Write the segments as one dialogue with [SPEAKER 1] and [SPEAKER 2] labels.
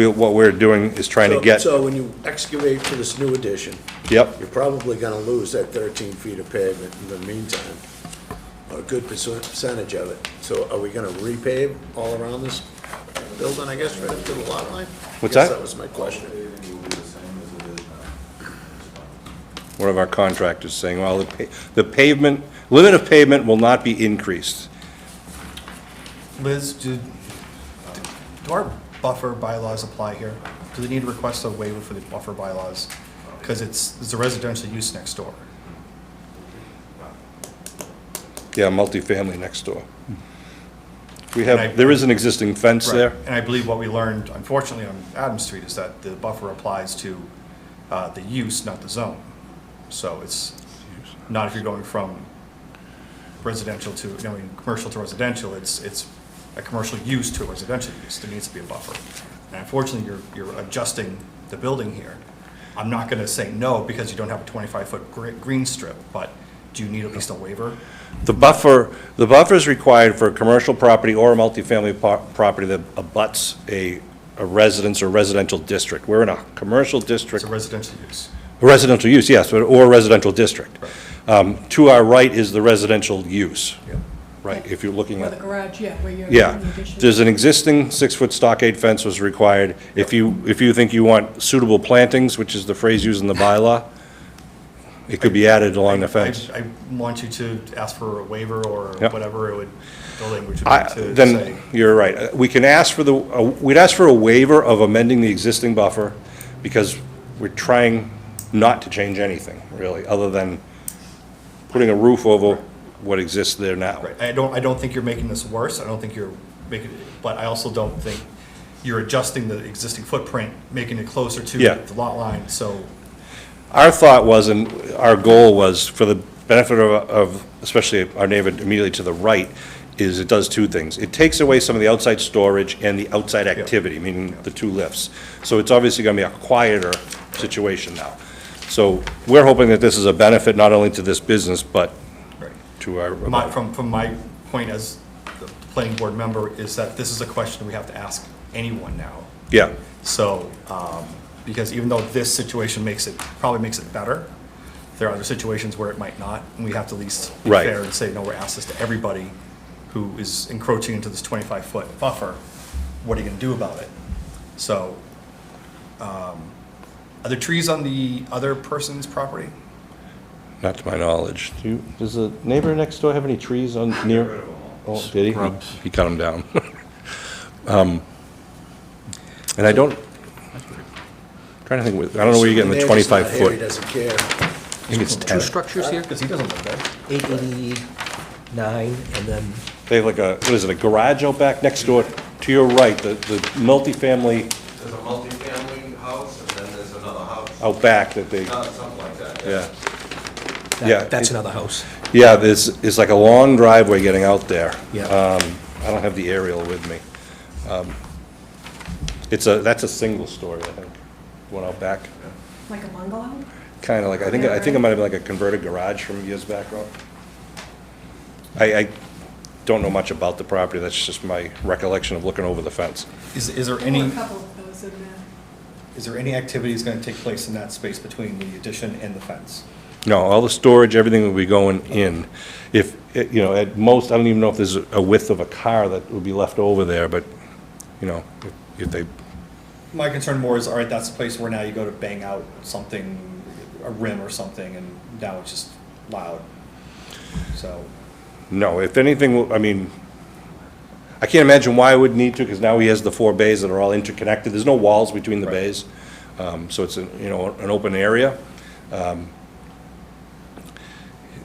[SPEAKER 1] we- what we're doing is trying to
[SPEAKER 2] So-
[SPEAKER 1] get,
[SPEAKER 2] So when you excavate for this new addition,
[SPEAKER 1] yep,
[SPEAKER 2] you're probably gonna lose that thirteen feet of pavement in the meantime, or a good perso- percentage of it. So are we gonna repave all around this building, I guess, right up to the lot line?
[SPEAKER 1] What's
[SPEAKER 2] Guess
[SPEAKER 1] that?
[SPEAKER 2] That was my question.
[SPEAKER 1] one of our contractors saying, well, the pa- the pavement, limit of pavement will not be increased.
[SPEAKER 3] Liz, do, do our buffer bylaws apply here? Do they need to request a waiver for the buffer bylaws? Because it's, it's a residential use next door.
[SPEAKER 1] Yeah, multifamily next door. We
[SPEAKER 3] And I-
[SPEAKER 1] have, there is an existing fence
[SPEAKER 3] Right.
[SPEAKER 1] there.
[SPEAKER 3] And I believe what we learned unfortunately on Adams Street is that the buffer applies to uh, the use, not the zone. So it's not if you're going from residential to, you know, I mean, commercial to residential, it's, it's a commercial use to a residential use, there needs to be a buffer. And unfortunately, you're, you're adjusting the building here. I'm not gonna say no because you don't have a 25-foot gre- green strip, but do you need at least a waiver?
[SPEAKER 1] The buffer, the buffer is required for a commercial property or a multifamily po- property that abuts a a residence or residential district. We're in a commercial district
[SPEAKER 3] It's a residential use.
[SPEAKER 1] Residential use, yes, but- or residential district. Um, To our right is the residential use,
[SPEAKER 3] Yeah.
[SPEAKER 1] right, if you're looking
[SPEAKER 4] Or the
[SPEAKER 1] at,
[SPEAKER 4] garage, yeah, where you're.
[SPEAKER 1] yeah.
[SPEAKER 4] doing the addition.
[SPEAKER 1] There's an existing six-foot stockade fence was required. If you, if you think you want suitable plantings, which is the phrase used in the bylaw, it could be added along the fence.
[SPEAKER 3] I, I want you to ask for a waiver or
[SPEAKER 1] Yep.
[SPEAKER 3] whatever it would, the language
[SPEAKER 1] I-
[SPEAKER 3] would be to say.
[SPEAKER 1] Then, you're right. Uh, We can ask for the, uh, we'd ask for a waiver of amending the existing buffer because we're trying not to change anything, really, other than putting a roof over what exists there now.
[SPEAKER 3] Right, I don't, I don't think you're making this worse, I don't think you're making, but I also don't think you're adjusting the existing footprint, making it closer to
[SPEAKER 1] Yeah.
[SPEAKER 3] the lot line, so
[SPEAKER 1] Our thought was, and our goal was, for the benefit of- of, especially our neighbor immediately to the right, is it does two things. It takes away some of the outside storage and the outside activity, meaning the two lifts. So it's obviously going to be a quieter situation now. So we're hoping that this is a benefit not only to this business, but
[SPEAKER 3] Right.
[SPEAKER 1] to
[SPEAKER 3] my,
[SPEAKER 1] our,
[SPEAKER 3] from, from my point as the planning board member, is that this is a question we have to ask anyone now.
[SPEAKER 1] yeah,
[SPEAKER 3] So, um, because even though this situation makes it, probably makes it better, there are other situations where it might not, and we have to at least be
[SPEAKER 1] Right.
[SPEAKER 3] fair and say, no, we're asking this to everybody who is encroaching into this twenty-five foot buffer, what are you gonna do about it? So, um, are there trees on the other person's property?
[SPEAKER 1] not to my knowledge. Do you, does the neighbor next door have any trees on, near? Oh, did he?
[SPEAKER 5] Scrubs.
[SPEAKER 1] He cut them down. Um, And I don't, trying to think, with- I don't know where you're getting the
[SPEAKER 2] Neighbor's not
[SPEAKER 1] 25
[SPEAKER 2] here,
[SPEAKER 1] foot.
[SPEAKER 2] He doesn't care.
[SPEAKER 1] I think it's
[SPEAKER 5] Two
[SPEAKER 1] 10.
[SPEAKER 5] structures here,
[SPEAKER 3] Because he doesn't live there.
[SPEAKER 5] 889, and then
[SPEAKER 1] They have like a, what is it, a garage out back next door? To your right, the, the multifamily
[SPEAKER 6] There's a multifamily house, and then there's another house,
[SPEAKER 1] out back that they,
[SPEAKER 6] Uh, something like that, yeah.
[SPEAKER 1] yeah. Yeah.
[SPEAKER 5] that- that's another house.
[SPEAKER 1] Yeah, there's, it's like a long driveway getting out there.
[SPEAKER 5] Yeah.
[SPEAKER 1] Um, I don't have the aerial with me. Um, It's a, that's a single story, I think, one out back.
[SPEAKER 4] Like a bungalow?
[SPEAKER 1] Kind of like, I think, I think it might have been like a converted garage from years back, Rob. I, I don't know much about the property, that's just my recollection of looking over the fence.
[SPEAKER 3] Is, is there
[SPEAKER 4] Or
[SPEAKER 3] any,
[SPEAKER 4] a couple of those in there.
[SPEAKER 3] is there any activity that's gonna take place in that space between the addition and the fence?
[SPEAKER 1] No, all the storage, everything will be going in. If, eh, you know, at most, I don't even know if there's a width of a car that would be left over there, but, you know, if- if they,
[SPEAKER 3] My concern more is, all right, that's the place where now you go to bang out something, a rim or something, and now it's just loud. So,
[SPEAKER 1] no, if anything, will- I mean, I can't imagine why I would need to, because now he has the four bays that are all interconnected. There's no walls between the
[SPEAKER 3] Right.
[SPEAKER 1] bays. Um, So it's, a you know, an open area. Um,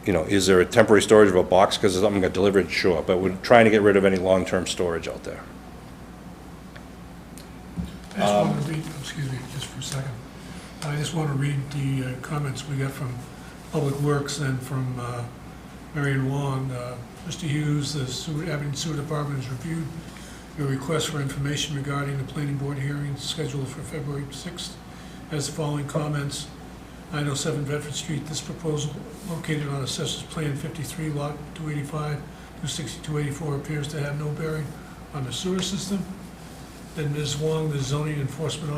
[SPEAKER 1] You know, is there a temporary storage of a box because something got delivered? Sure, but we're trying to get rid of any long-term storage out there.
[SPEAKER 7] I just want
[SPEAKER 6] Um,
[SPEAKER 7] to read, excuse me, just for a second. I just want to read the uh, comments we got from Public Works and from uh, Marion Wong. Uh, Mr. Hughes, the sewer, Abington Sewer Department has reviewed your request for information regarding the planning board hearing scheduled for February 6th. Has the following comments. 907 Bedford Street, this proposal located on Assessors Plan oh 53, Lot 285, 260, 284, appears to have no bearing on the sewer system. Then Ms. Wong, the zoning enforcement